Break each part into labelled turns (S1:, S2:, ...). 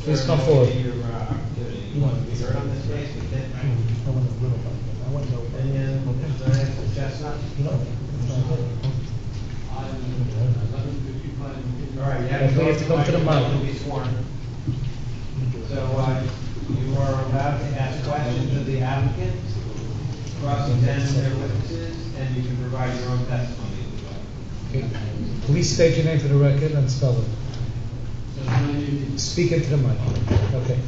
S1: Please come forward.
S2: Your, uh, activity. You want to be heard on this case, we did,
S3: I
S2: right?
S3: want to little bit. I want to go.
S2: And then, Mr. Diane Chestnut. All right, you have to
S1: We
S2: go
S1: have to come to the mic.
S2: You'll be sworn. So, uh, you are allowed to ask questions of the applicant, cross-examine their witnesses, and you can provide your own testimony. if you like.
S1: Okay. Please state your name for the record and spell it.
S4: Sir, my name is-
S1: Speak into the mic. Okay.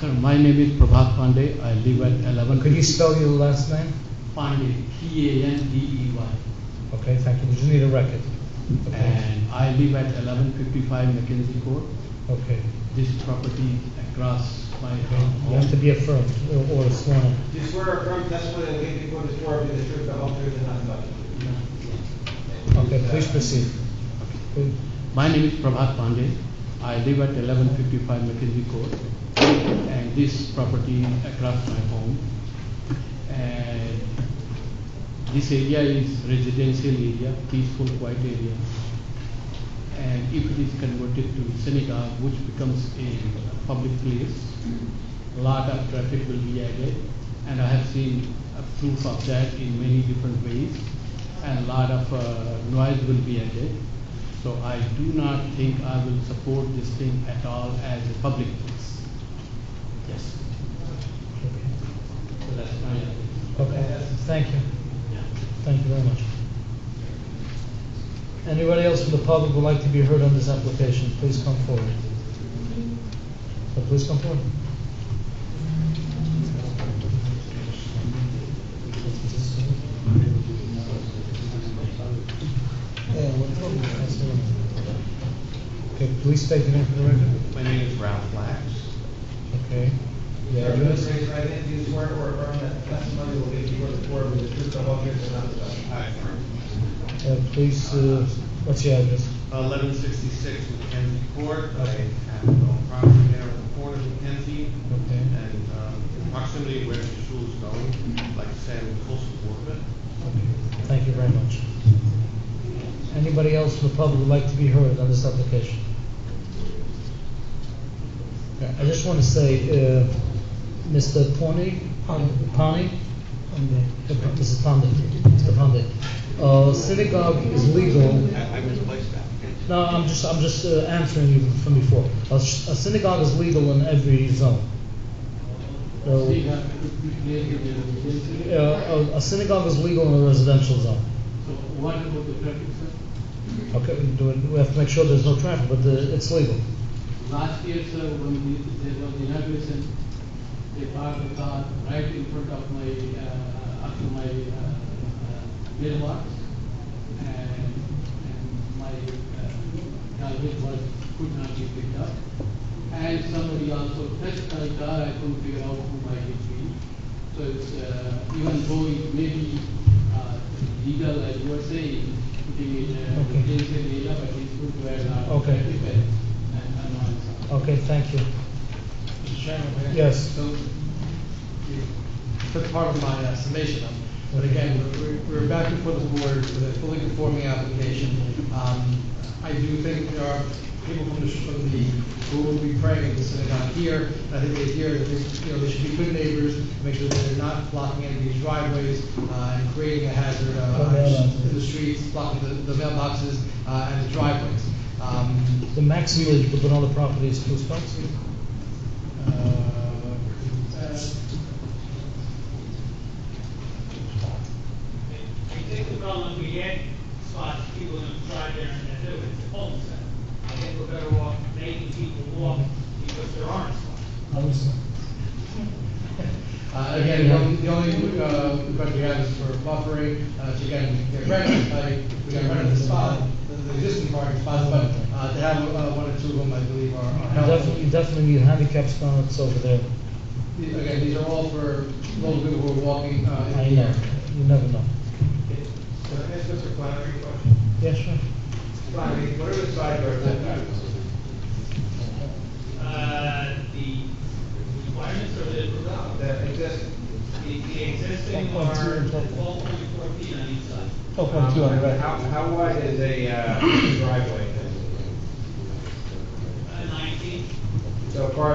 S4: Sir, my name is Prabhat Pandey. I live at eleven.
S1: Could you spell your last name?
S4: Pandey, P A N D E Y.
S1: Okay, thank you. We just need a record. Okay.
S4: And I live at eleven fifty-five Mackenzie Court.
S1: Okay.
S4: This property across my
S1: Okay. You have to
S4: home.
S1: be affirmed or- or sworn. in.
S2: Do you swear or affirm testimony that you give before this board will be the truth, the whole truth, and nothing but the truth?
S1: Okay, please proceed. Please.
S4: My name is Prabhat Pandey. I live at eleven fifty-five Mackenzie Court. And this property across my home. And this area is residential area, peaceful, quiet area. And if it is converted to synagogue, which becomes a public place, lot of traffic will be added. And I have seen a proof of that in many different ways. And lot of uh, noise will be added. So I do not think I will support this thing at all as a public place. Yes,
S1: Okay.
S4: so that's my, opinion.
S1: Okay, thank you.
S4: yeah.
S1: Thank you very much. Anybody else from the public would like to be heard on this application, please come forward. So please come forward. Yeah, what problem? That's the one. Okay, please state your name for the record.
S5: My name is Ralph Lax.
S1: Okay. The
S2: Sir,
S1: address?
S2: please raise your right hand. Do you swear or affirm that the testimony will give before this board will be the truth, the whole truth, and nothing but the truth?
S5: I affirm.
S1: Uh, please, uh, what's your address?
S5: Eleven sixty-six Mackenzie Court. I have my own property there on the corner of Mackenzie
S1: Okay.
S5: and um, in proximity where the shul is going, like Sam Coastal Water.
S1: Thank you very much. Anybody else from the public would like to be heard on this application? Yeah, I just want to say, uh, Mr. Pony? Pani? Mrs. Pandey, Mr. Pandey. Uh, synagogue is legal
S5: I misplaced that.
S1: no, I'm just, I'm just uh, answering you from before. A s- a synagogue is legal in every zone. So, uh, a- a synagogue is legal in a residential zone. So what about the traffic, Okay, do it- we have to make sure there's no traffic, but the- it's legal.
S4: Last year, sir, when the- there was inauguration, they parked the car right in front of my, uh, up to my uh, uh, mailbox. And, and my uh, garbage was, could not be picked up. And somebody also touched my car, I couldn't figure out who might it be. So it's, uh, even though it may be uh, legal, as you were saying, putting it in a
S1: Okay.
S4: residential area, but it's good to have not
S1: Okay.
S4: prevent and annoyance.
S1: Okay, thank you.
S6: Mr. Chairman, may I-
S1: Yes.
S6: So, you took part of my uh, summation, um, but again, we're- we're back before the board with a fully conforming application. Um, I do think there are people from the, from the, who will be praying in the synagogue here, and I think they hear that, they- you know, they should be good neighbors, make sure that they're not blocking any of these driveways, uh, and creating a hazard, uh, in the streets, blocking the, the mailboxes, uh, and the driveways. Um,
S1: The maximum you could put on the property is two spots?
S6: Uh, uh,
S7: I think the problem we had, spots people gonna try there and they do it, it's a home center. I think we're better off making people walk because there aren't spots.
S6: Uh, Again, the only- the only uh, question we have is for buffering, uh, so again, we can get rid of, like, we got rid of the spot, the- the existing parking spots, but uh, to have uh, one or two of them, I believe, are are
S1: You
S6: helpful.
S1: definitely, you definitely need handicap spots over there.
S6: These- Again, these are all for those people who are walking uh,
S1: I
S6: in the
S1: know,
S6: area.
S1: you never know.
S2: Can I ask Mr. Flannery a question?
S1: Yes, sure.
S2: Flannery, what are the side yards that
S7: Uh, the requirements are that we're out.
S2: that exist?
S7: The, the existing are twelve point four feet on each side.
S2: Um, How, how wide is a uh, driveway?
S7: Uh, nineteen,
S2: So
S6: So part